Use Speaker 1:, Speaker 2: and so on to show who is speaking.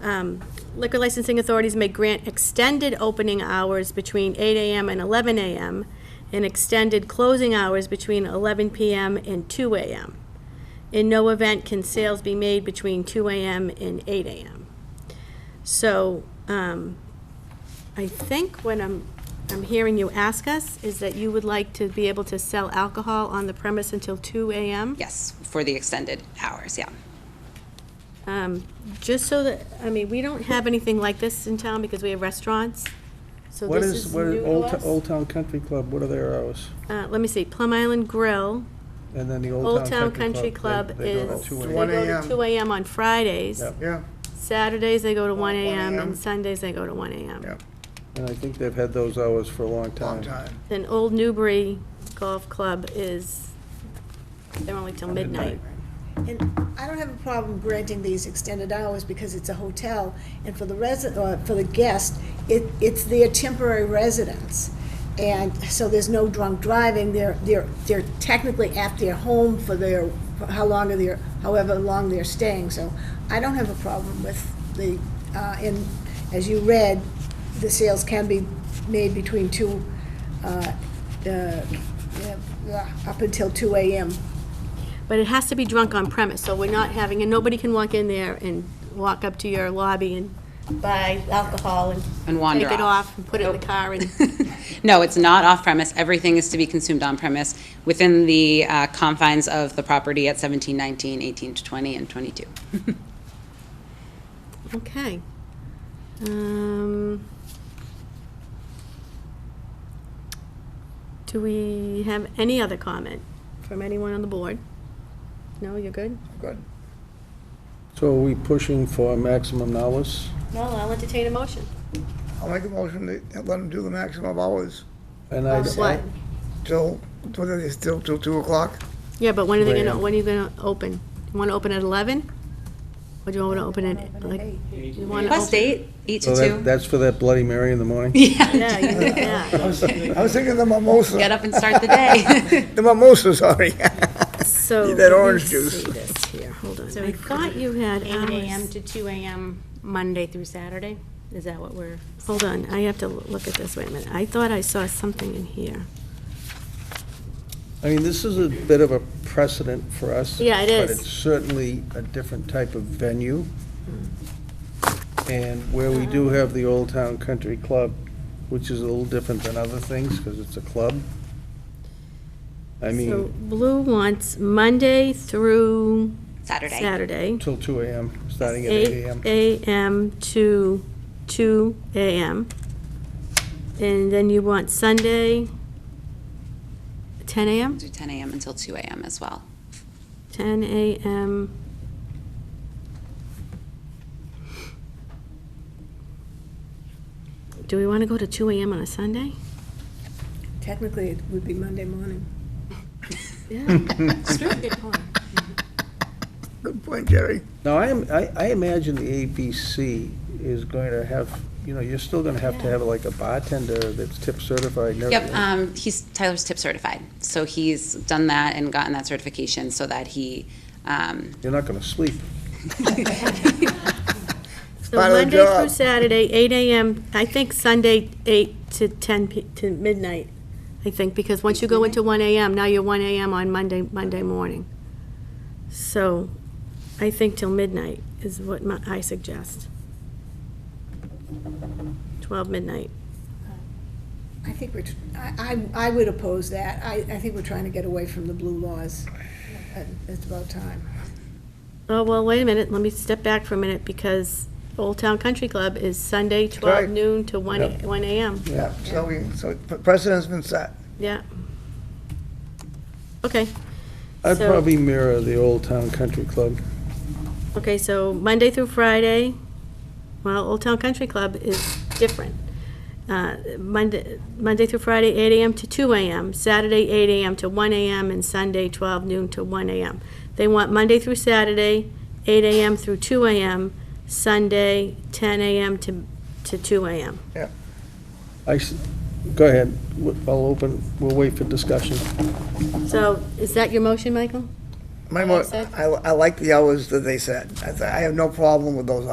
Speaker 1: Um, Liquor licensing authorities may grant extended opening hours between 8 AM and 11 AM and extended closing hours between 11 PM and 2 AM. In no event can sales be made between 2 AM and 8 AM. So um, I think what I'm, I'm hearing you ask us is that you would like to be able to sell alcohol on the premise until 2 AM?
Speaker 2: Yes, for the extended hours, yeah.
Speaker 1: Um, Just so that, I mean, we don't have anything like this in town because we have restaurants, so
Speaker 3: What
Speaker 1: this
Speaker 3: is,
Speaker 1: is
Speaker 3: what
Speaker 1: new
Speaker 3: is
Speaker 1: to
Speaker 3: Old,
Speaker 1: us.
Speaker 3: T- Old Town Country Club, what are their hours?
Speaker 1: Uh, Let me see, Plum Island Grill,
Speaker 3: And then the
Speaker 1: Old Town Country Club
Speaker 3: they- they go to
Speaker 1: is, they
Speaker 3: 2
Speaker 1: go
Speaker 3: a.m.
Speaker 1: to
Speaker 4: 1
Speaker 1: 2 AM on Fridays.
Speaker 3: Yep.
Speaker 4: Yeah,
Speaker 1: Saturdays, they go to 1
Speaker 4: 1
Speaker 1: AM, and
Speaker 4: a.m..
Speaker 1: Sundays, they go to 1 AM.
Speaker 4: yeah,
Speaker 3: And I think they've had those hours for a long time.
Speaker 4: long time.
Speaker 1: Then Old Newbury Golf Club is, they're only till midnight.
Speaker 5: And I don't have a problem granting these extended hours because it's a hotel, and for the resident, or for the guest, it, it's their temporary residence. And so there's no drunk driving, they're, they're, they're technically at their home for their, for how long are their, however long they're staying, so I don't have a problem with the, uh, and as you read, the sales can be made between two, uh, uh, yeah, up until two AM.
Speaker 1: But it has to be drunk on premise, so we're not having, and nobody can walk in there and walk up to your lobby and buy alcohol and.
Speaker 2: And wander
Speaker 1: Take it
Speaker 2: off.
Speaker 1: off and put it in the car and,
Speaker 2: No, it's not off-premise. Everything is to be consumed on-premise within the uh, confines of the property at 17, 19, 18 to 20, and 22.
Speaker 1: okay. Um, Do we have any other comment from anyone on the board? No, you're good?
Speaker 4: Good.
Speaker 3: So are we pushing for maximum hours?
Speaker 1: No, I'll entertain a motion.
Speaker 4: I'll make a motion to let them do the maximum hours
Speaker 3: And I,
Speaker 1: What?
Speaker 4: till, whether it's still till two o'clock.
Speaker 1: Yeah, but when are they gonna,
Speaker 3: Right.
Speaker 1: when are you gonna open? You wanna open at eleven? Or do you wanna open at, like, you wanna open?
Speaker 2: Plus eight, eight
Speaker 3: so
Speaker 2: to
Speaker 3: that,
Speaker 2: two.
Speaker 3: that's for that Bloody Mary in the morning?
Speaker 1: Yeah, you- yeah.
Speaker 4: I was I was thinking the
Speaker 2: Get
Speaker 4: mimosa,
Speaker 2: up and start the day.
Speaker 4: the mimosa, sorry.
Speaker 1: So.
Speaker 4: Need
Speaker 1: let
Speaker 4: that
Speaker 1: me
Speaker 4: orange juice.
Speaker 1: See this here, hold on. So I thought you had
Speaker 6: 8 AM
Speaker 1: hours.
Speaker 6: to 2 AM, Monday through Saturday? Is that what we're,
Speaker 1: Hold on, I have to look at this, wait a minute. I thought I saw something in here.
Speaker 3: I mean, this is a bit of a precedent for us.
Speaker 1: Yeah, it
Speaker 3: But
Speaker 1: is.
Speaker 3: it's certainly a different type of venue. And where we do have the Old Town Country Club, which is a little different than other things, because it's a club. I
Speaker 1: So
Speaker 3: mean,
Speaker 1: Blue wants Monday through
Speaker 2: Saturday.
Speaker 1: Saturday.
Speaker 3: till two AM, starting at eight
Speaker 1: Eight
Speaker 3: AM.
Speaker 1: AM to two AM. And then you want Sunday, ten AM?
Speaker 2: Do 10 AM until 2 AM as well.
Speaker 1: 10 a.m. Do we want to go to 2 a.m. on a Sunday?
Speaker 5: Technically, it would be Monday morning.
Speaker 4: Good point, Jerry.
Speaker 3: Now, I am, I, I imagine the ABC is going to have, you know, you're still gonna have to have like a bartender that's tip certified and everything.
Speaker 2: Yep, um, he's, Tyler's tip certified. So he's done that and gotten that certification so that he, um,
Speaker 3: You're not gonna sleep.
Speaker 1: So
Speaker 4: part of the
Speaker 1: Monday through
Speaker 4: job.
Speaker 1: Saturday, 8 a.m., I think Sunday, 8 to 10, p- to midnight, I think, because once you go into 1 a.m., now you're 1 a.m. on Monday, Monday morning. So I think till midnight is what my- I suggest. 12 midnight.
Speaker 5: I think we're, tr- I, I I would oppose that. I, I think we're trying to get away from the blue laws. Uh, It's about time.
Speaker 1: Oh, well, wait a minute, let me step back for a minute, because Old Town Country Club is Sunday, 12
Speaker 4: right.
Speaker 1: noon to 1, a- 1 a.m.,
Speaker 4: Yeah, so we, so precedent's been set.
Speaker 1: yeah. Okay,
Speaker 3: I'd
Speaker 1: So-
Speaker 3: probably mirror the Old Town Country Club.
Speaker 1: okay, so Monday through Friday, well, Old Town Country Club is different. Uh, Monday, Monday through Friday, 8 a.m. to 2 a.m., Saturday, 8 a.m. to 1 a.m., and Sunday, 12 noon to 1 a.m. They want Monday through Saturday, 8 a.m. through 2 a.m., Sunday, 10 a.m. to, to 2 a.m.
Speaker 3: I, s- go ahead, W- I'll open, we'll wait for discussion.
Speaker 1: So is that your motion, Michael?
Speaker 4: My,
Speaker 1: I
Speaker 4: mo-
Speaker 1: said-
Speaker 4: I, I like the hours that they set. I, I have no problem with those